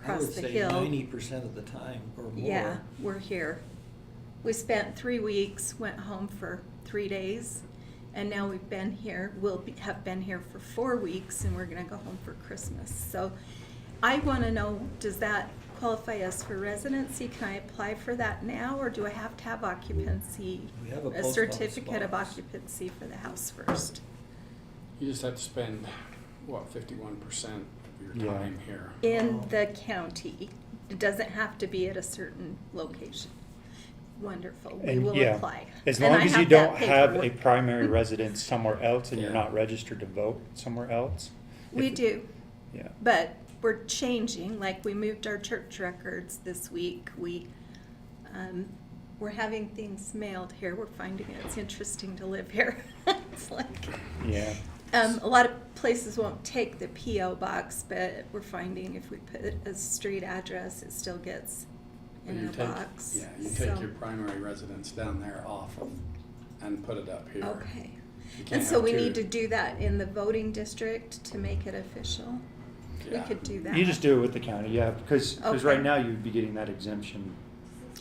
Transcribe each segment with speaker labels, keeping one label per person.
Speaker 1: across the
Speaker 2: I would say ninety
Speaker 1: hill.
Speaker 2: percent of the time or more.
Speaker 1: Yeah, we're here. We spent three weeks, went home for three days, and now we've been here, we'll be- have been here for four weeks, and we're gonna go home for Christmas. So I wanna know, does that qualify us for residency? Can I apply for that now, or do I have to have occupancy?
Speaker 2: We have a post office
Speaker 1: certificate of
Speaker 2: box.
Speaker 1: occupancy for the house first,
Speaker 3: You just have to spend, what, fifty-one percent of your
Speaker 4: Yeah.
Speaker 3: time here?
Speaker 1: in the county. It doesn't have to be at a certain location. Wonderful, we
Speaker 4: And,
Speaker 1: will
Speaker 4: yeah,
Speaker 1: apply.
Speaker 4: As
Speaker 1: And
Speaker 4: long
Speaker 1: I
Speaker 4: as you
Speaker 1: have that
Speaker 4: don't have a
Speaker 1: paperwork.
Speaker 4: primary residence somewhere else and you're
Speaker 3: Yeah.
Speaker 4: not registered to vote somewhere else.
Speaker 1: We
Speaker 4: if-
Speaker 1: do,
Speaker 4: Yeah,
Speaker 1: but we're changing, like we moved our church records this week. We, um, we're having things mailed here. We're finding it's interesting to live here. It's like,
Speaker 4: yeah.
Speaker 1: Um, a lot of places won't take the PO box, but we're finding if we put a street address, it still gets in
Speaker 3: You
Speaker 1: our
Speaker 3: take-
Speaker 1: box.
Speaker 3: Yeah, you
Speaker 1: So-
Speaker 3: take your primary residence down there off of, and put it up here.
Speaker 1: Okay,
Speaker 3: You can't
Speaker 1: and so
Speaker 3: have
Speaker 1: we
Speaker 3: two.
Speaker 1: need to do that in the voting district to make it official. We
Speaker 3: Yeah.
Speaker 1: could do that.
Speaker 4: You just do it with the county, yeah, because, because
Speaker 1: Okay.
Speaker 4: right now you'd be getting that exemption.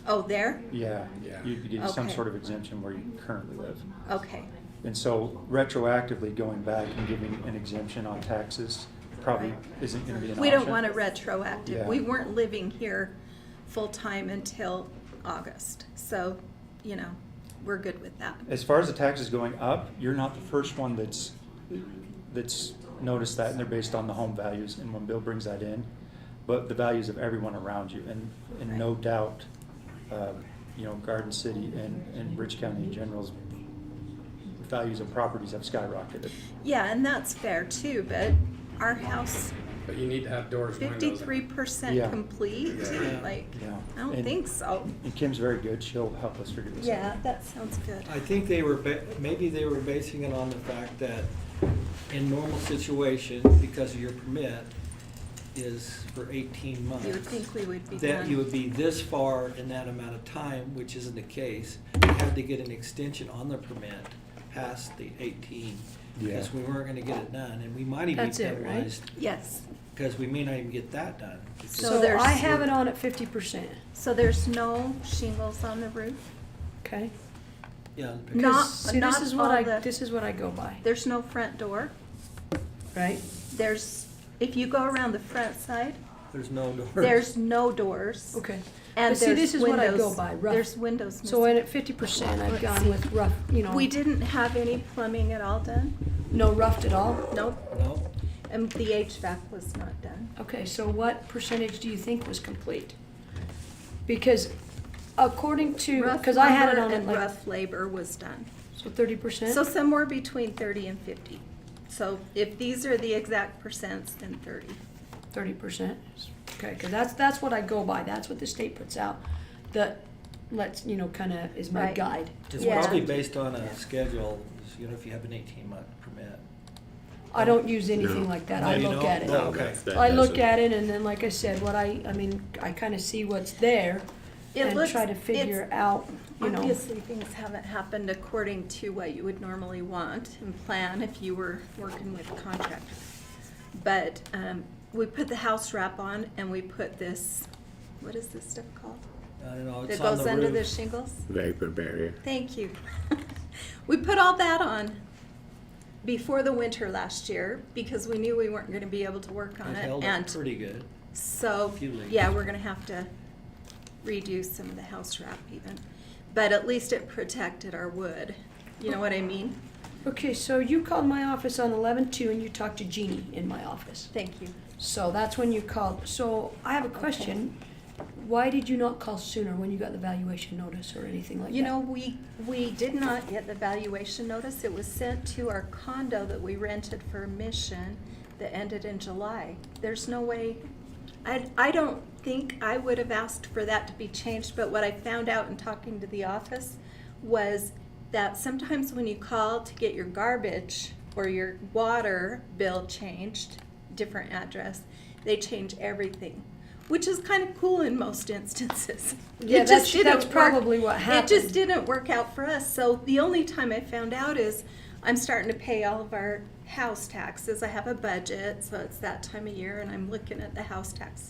Speaker 1: Oh, there?
Speaker 4: Yeah,
Speaker 3: Yeah.
Speaker 4: you'd be getting some
Speaker 1: Okay.
Speaker 4: sort of exemption where you currently live.
Speaker 1: Okay,
Speaker 4: And so retroactively going back and giving an exemption on taxes probably
Speaker 1: Right.
Speaker 4: isn't gonna be an option.
Speaker 1: we don't want a retroactive.
Speaker 4: Yeah.
Speaker 1: We weren't living here full-time until August, so, you know, we're good with that.
Speaker 4: As far as the taxes going up, you're not the first one that's, that's noticed that, and they're based on the home values, and when Bill brings that in, but the values of everyone around you, and, and no
Speaker 1: Right.
Speaker 4: doubt, uh, you know, Garden City and, and Rich County in general's values of properties have skyrocketed.
Speaker 1: Yeah, and that's fair too, but our house
Speaker 3: But you need to have doors, windows. and-
Speaker 1: fifty-three percent
Speaker 4: Yeah.
Speaker 1: complete,
Speaker 3: Yeah.
Speaker 1: like,
Speaker 4: Yeah.
Speaker 1: I don't
Speaker 4: And-
Speaker 1: think so.
Speaker 4: And Kim's very good, she'll help us figure this out.
Speaker 1: Yeah, that sounds good.
Speaker 2: I think they were, ba- maybe they were basing it on the fact that in normal situation, because of your permit, is for eighteen months.
Speaker 1: You would think we would be
Speaker 2: That you
Speaker 1: done.
Speaker 2: would be this far in that amount of time, which isn't the case. You had to get an extension on the permit past the eighteen, because
Speaker 4: Yeah.
Speaker 2: we weren't gonna get it done, and we might even be
Speaker 5: That's it, right?
Speaker 2: penalized,
Speaker 1: Yes,
Speaker 2: because we may not even get that done.
Speaker 5: So
Speaker 1: there's-
Speaker 5: I have it on at fifty percent,
Speaker 1: so there's no shingles on the roof?
Speaker 5: okay?
Speaker 2: Yeah.
Speaker 1: No. Not-
Speaker 5: See,
Speaker 1: not
Speaker 5: this is what
Speaker 1: all
Speaker 5: I,
Speaker 1: the-
Speaker 5: this is what I go by,
Speaker 1: There's no front door?
Speaker 5: right?
Speaker 1: There's, if you go around the front side,
Speaker 2: There's no doors.
Speaker 1: there's no doors.
Speaker 5: Okay.
Speaker 1: And
Speaker 5: But see,
Speaker 1: there's
Speaker 5: this is what I go
Speaker 1: windows-
Speaker 5: by, rough.
Speaker 1: There's windows
Speaker 5: So at
Speaker 1: missing.
Speaker 5: fifty percent, I've
Speaker 1: Let's
Speaker 5: gone
Speaker 1: see.
Speaker 5: with rough, you know,
Speaker 1: We didn't have any plumbing at all done?
Speaker 5: no roughed at all.
Speaker 1: Nope,
Speaker 2: No,
Speaker 1: and the HVAC was not done.
Speaker 5: Okay, so what percentage do you think was complete? Because according to,
Speaker 1: Rough
Speaker 5: because I had it
Speaker 1: lumber
Speaker 5: on at
Speaker 1: and
Speaker 5: like,
Speaker 1: Rough labor was done.
Speaker 5: so thirty percent?
Speaker 1: So somewhere between thirty and fifty. So if these are the exact percents, then thirty.
Speaker 5: Thirty percent, okay, because that's, that's what I go by, that's what the state puts out, that lets, you know, kind of is my
Speaker 1: Right.
Speaker 5: guide.
Speaker 2: it's
Speaker 1: Yeah.
Speaker 2: probably based on a schedule, you know, if you have an eighteen month permit.
Speaker 5: I don't use anything
Speaker 6: No.
Speaker 5: like that,
Speaker 2: No,
Speaker 5: I
Speaker 2: you
Speaker 5: look
Speaker 2: don't?
Speaker 5: at it.
Speaker 2: No, okay.
Speaker 6: That
Speaker 5: I look
Speaker 6: doesn't-
Speaker 5: at it and then, like I said, what I, I mean, I kind of see what's there
Speaker 1: It
Speaker 5: and
Speaker 1: looks-
Speaker 5: try to figure out, you know.
Speaker 1: Obviously, things haven't happened according to what you would normally want and plan if you were working with a contractor. But um, we put the house wrap on and we put this, what is this stuff called?
Speaker 2: I don't know,
Speaker 1: That
Speaker 2: it's on
Speaker 1: goes
Speaker 2: the
Speaker 1: under the
Speaker 2: roof.
Speaker 1: shingles?
Speaker 6: Vapor barrier.
Speaker 1: Thank you. We put all that on before the winter last year because we knew we weren't going to be able to work on
Speaker 2: It
Speaker 1: it.
Speaker 2: held up
Speaker 1: And
Speaker 2: pretty good.
Speaker 1: So,
Speaker 2: Few leaks.
Speaker 1: yeah, we're gonna have to redo some of the house wrap even, but at least it protected our wood, you know what I mean?
Speaker 5: Okay, so you called my office on eleven-two and you talked to Jeannie in my office.
Speaker 1: Thank you.
Speaker 5: So that's when you called. So I have a question. Why did you not call sooner when you got the valuation notice or anything like that?
Speaker 1: You know, we, we did not get the valuation notice, it was sent to our condo that we rented for Mission that ended in July. There's no way, I, I don't think I would have asked for that to be changed, but what I found out in talking to the office was that sometimes when you call to get your garbage or your water bill changed, different address, they change everything, which is kind of cool in most instances.
Speaker 5: Yeah,
Speaker 1: It
Speaker 5: that's-
Speaker 1: just didn't
Speaker 5: that's
Speaker 1: work-
Speaker 5: probably what
Speaker 1: It just
Speaker 5: happened.
Speaker 1: didn't work out for us. So the only time I found out is I'm starting to pay all of our house taxes. I have a budget, so it's that time of year, and I'm looking at the house tax